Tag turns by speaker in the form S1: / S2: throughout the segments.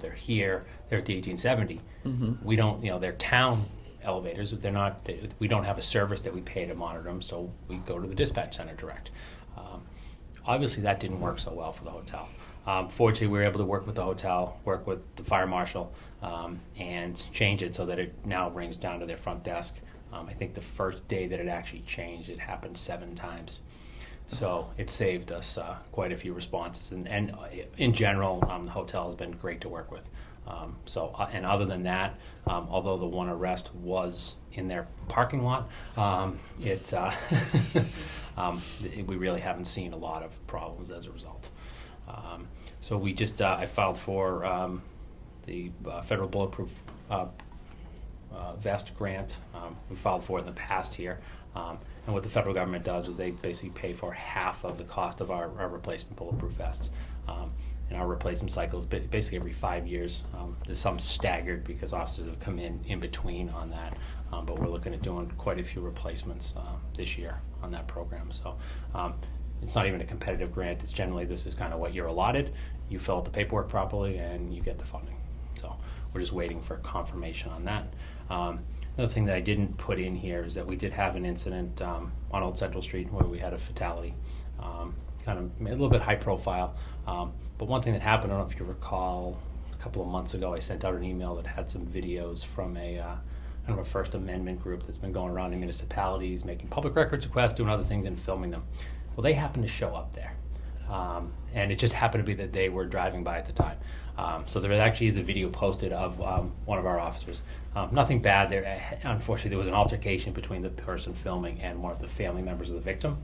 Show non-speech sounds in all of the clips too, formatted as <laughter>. S1: they're here, they're at the 1870. We don't, you know, they're town elevators, but they're not, they- we don't have a service that we pay to monitor them, so we go to the dispatch center direct. Um, Obviously, that didn't work so well for the hotel. Um, Fortunately, we were able to work with the hotel, work with the fire marshal, um, and change it so that it now rings down to their front desk. Um, I think the first day that it actually changed, it happened seven times. So it saved us uh, quite a few responses, and, and uh, in general, um, the hotel has been great to work with. Um, so, uh, and other than that, um, although the one arrest was in their parking lot, um, it, uh, <laughs> um, th- we really haven't seen a lot of problems as a result. Um, so we just, uh, I filed for um, the uh, federal bulletproof uh, uh, vest grant um, we filed for in the past here. Um, and what the federal government does is they basically pay for half of the cost of our, our replacement bulletproof vests. Um, and our replacement cycle is ba- basically every five years. Um, there's some staggered because officers have come in in between on that. Um, but we're looking at doing quite a few replacements uh, this year on that program. So um, it's not even a competitive grant. It's generally this is kind of what you're allotted. You fill out the paperwork properly and you get the funding. So we're just waiting for confirmation on that. Um, Another thing that I didn't put in here is that we did have an incident um, on Old Central Street where we had a fatality, um, kind of a little bit high profile. Um, But one thing that happened, I don't know if you recall, a couple of months ago, I sent out an email that had some videos from a, uh, kind of a First Amendment group that's been going around in municipalities, making public records requests, doing other things and filming them. Well, they happened to show up there. Um, and it just happened to be that they were driving by at the time. Um, so there actually is a video posted of um, one of our officers. Um, nothing bad there. Unfortunately, there was an altercation between the person filming and one of the family members of the victim.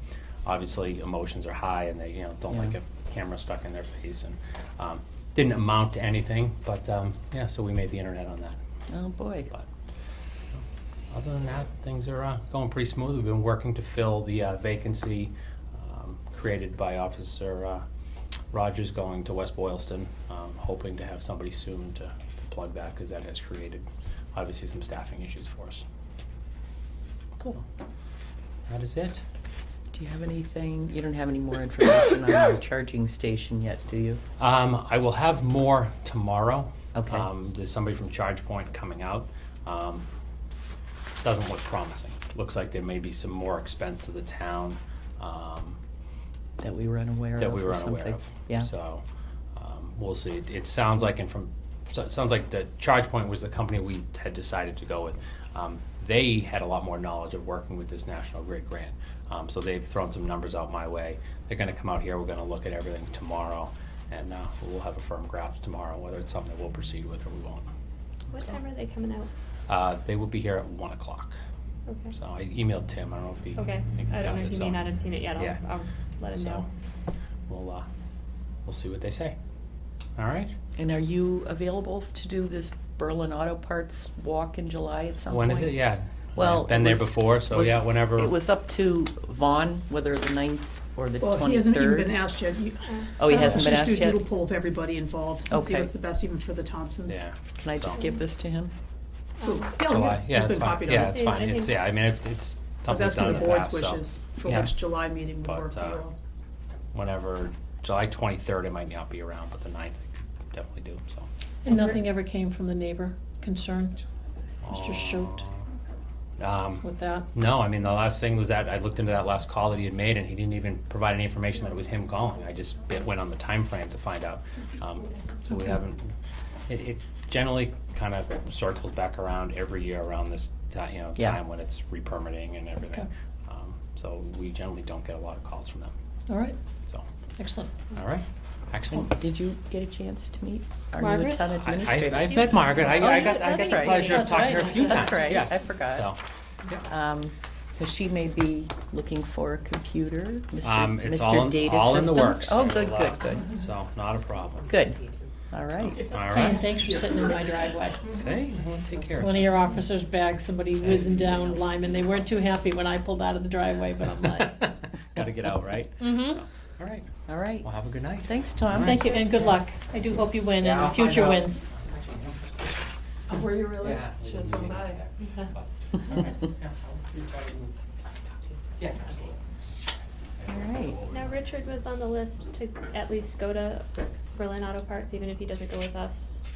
S1: Obviously, emotions are high, and they you know don't like
S2: Yeah.
S1: a camera stuck in their face, and um, didn't amount to anything. But um, yeah, so we made the internet on that.
S2: Oh, boy.
S1: But other than that, things are uh, going pretty smooth. We've been working to fill the uh, vacancy um, created by Officer uh, Rogers going to West Boylston, um, hoping to have somebody soon to to plug that, because that has created, obviously, some staffing issues for us.
S2: Cool.
S1: That is it.
S2: Do you have anything, you don't have any more information on
S1: <coughs>
S2: your charging station yet, do you?
S1: Um, I will have more tomorrow.
S2: Okay.
S1: Um, there's somebody from ChargePoint coming out. Um, doesn't look promising. Looks like there may be some more expense to the town. Um,
S2: That we were unaware of
S1: that we were
S2: or
S1: unaware
S2: something?
S1: of.
S2: Yeah,
S1: So, um, we'll see. It, it sounds like, and from, so it sounds like the Charge Point was the company we had decided to go with. Um, they had a lot more knowledge of working with this National Grid grant. Um, so they've thrown some numbers out my way. They're gonna come out here, we're gonna look at everything tomorrow, and, uh, we'll have a firm grasp tomorrow, whether it's something that we'll proceed with or we won't.
S3: What time are they coming out?
S1: Uh, they will be here at one o'clock.
S3: Okay.
S1: So I emailed Tim, I don't know if he.
S3: Okay,
S1: he
S3: I
S1: got
S3: don't know,
S1: it,
S3: he
S1: so-
S3: may not have seen it yet,
S1: Yeah.
S3: I'll, I'll let him
S1: So,
S3: know.
S1: we'll, uh, we'll see what they say. All right?
S2: and are you available to do this Berlin Auto Parts walk in July at some point?
S1: When is it? Yeah.
S2: Well.
S1: I've been
S2: it
S1: there
S2: was-
S1: before, so
S2: was-
S1: yeah, whenever.
S2: It was up to Vaughn, whether the ninth or the twenty-third.
S4: Well, he hasn't even been asked yet. You-
S2: Oh, he
S4: uh,
S2: hasn't been asked
S4: Just do a
S2: yet?
S4: doodle poll of everybody involved and see
S2: Okay.
S4: what's the best even for the Thompsons.
S1: yeah.
S2: Can I just
S1: so.
S2: give this to him?
S4: So,
S3: Um,
S4: yeah,
S1: July. Yeah, it's
S4: It's been
S1: fine.
S4: copied on.
S1: Yeah, it's
S3: Yeah, I
S1: fine. It's
S3: think-
S1: yeah. I mean, if it's
S4: I was
S1: something we've
S4: asking
S1: done
S4: the
S1: in the
S4: board's
S1: past,
S4: wishes
S1: so
S4: for
S1: yeah.
S4: which July meeting would
S1: But,
S4: work for
S1: uh,
S4: you.
S1: whenever July 23rd, it might not be around, but the 9th, I could definitely do. So.
S5: And nothing ever came from the neighbor concerned, Mr. Schultz,
S1: Um,
S5: with that?
S1: no, I mean the last thing was that I looked into that last call that he had made, and he didn't even provide any information that it was him calling. I just bit, went on the time frame to find out. Um, so we
S5: Okay.
S1: haven't. It, it generally kind of circles back around every year around this time, you know,
S2: Yeah.
S1: time when it's re-permitting and everything.
S5: Okay.
S1: Um, so we generally don't get a lot of calls from them.
S5: All right,
S1: So,
S5: excellent.
S1: all right,
S2: And
S1: excellent.
S2: did you get a chance to meet our new
S5: Margaret?
S2: town
S5: I-
S1: I,
S2: administrator?
S1: have met Margaret. I,
S2: Oh,
S1: I
S2: yeah,
S1: got, I got
S2: that's
S1: the
S2: right.
S1: pleasure of
S5: That's
S1: talking to her a
S5: right.
S1: few times.
S2: That's right.
S1: yes.
S2: I forgot.
S1: So,
S2: Because Um, she may be looking for a computer,
S1: um,
S2: Mr.
S1: it's all
S2: Mr.
S1: in,
S2: Data
S1: all in the
S2: Systems.
S1: works. so,
S2: Oh, good,
S1: uh,
S2: good, good,
S1: So, not a problem.
S2: good. All right.
S1: All
S5: And
S1: right.
S5: thanks for sitting in my driveway.
S1: Hey, we'll take care of
S5: One of
S1: it.
S5: your officers' bags, somebody whizzing down Lyman, they weren't too happy when I pulled out of the driveway, but
S1: <laughs>
S5: I'm like,
S1: Got to get out, right?
S5: mm-hmm.
S1: All right.
S2: All right.
S1: Well, have a good night.
S2: Thanks, Tom.
S5: Thank you, and good luck. I do hope you win,
S1: Yeah, I'll
S5: and
S1: find
S5: future
S1: out.
S5: wins.
S6: Were you really?
S1: Yeah.
S6: She just went by.
S1: Yeah, absolutely.
S2: <laughs> All right.
S3: um, Now, Richard was on the list to at least go to Berlin Auto Parts, even if he doesn't go with us.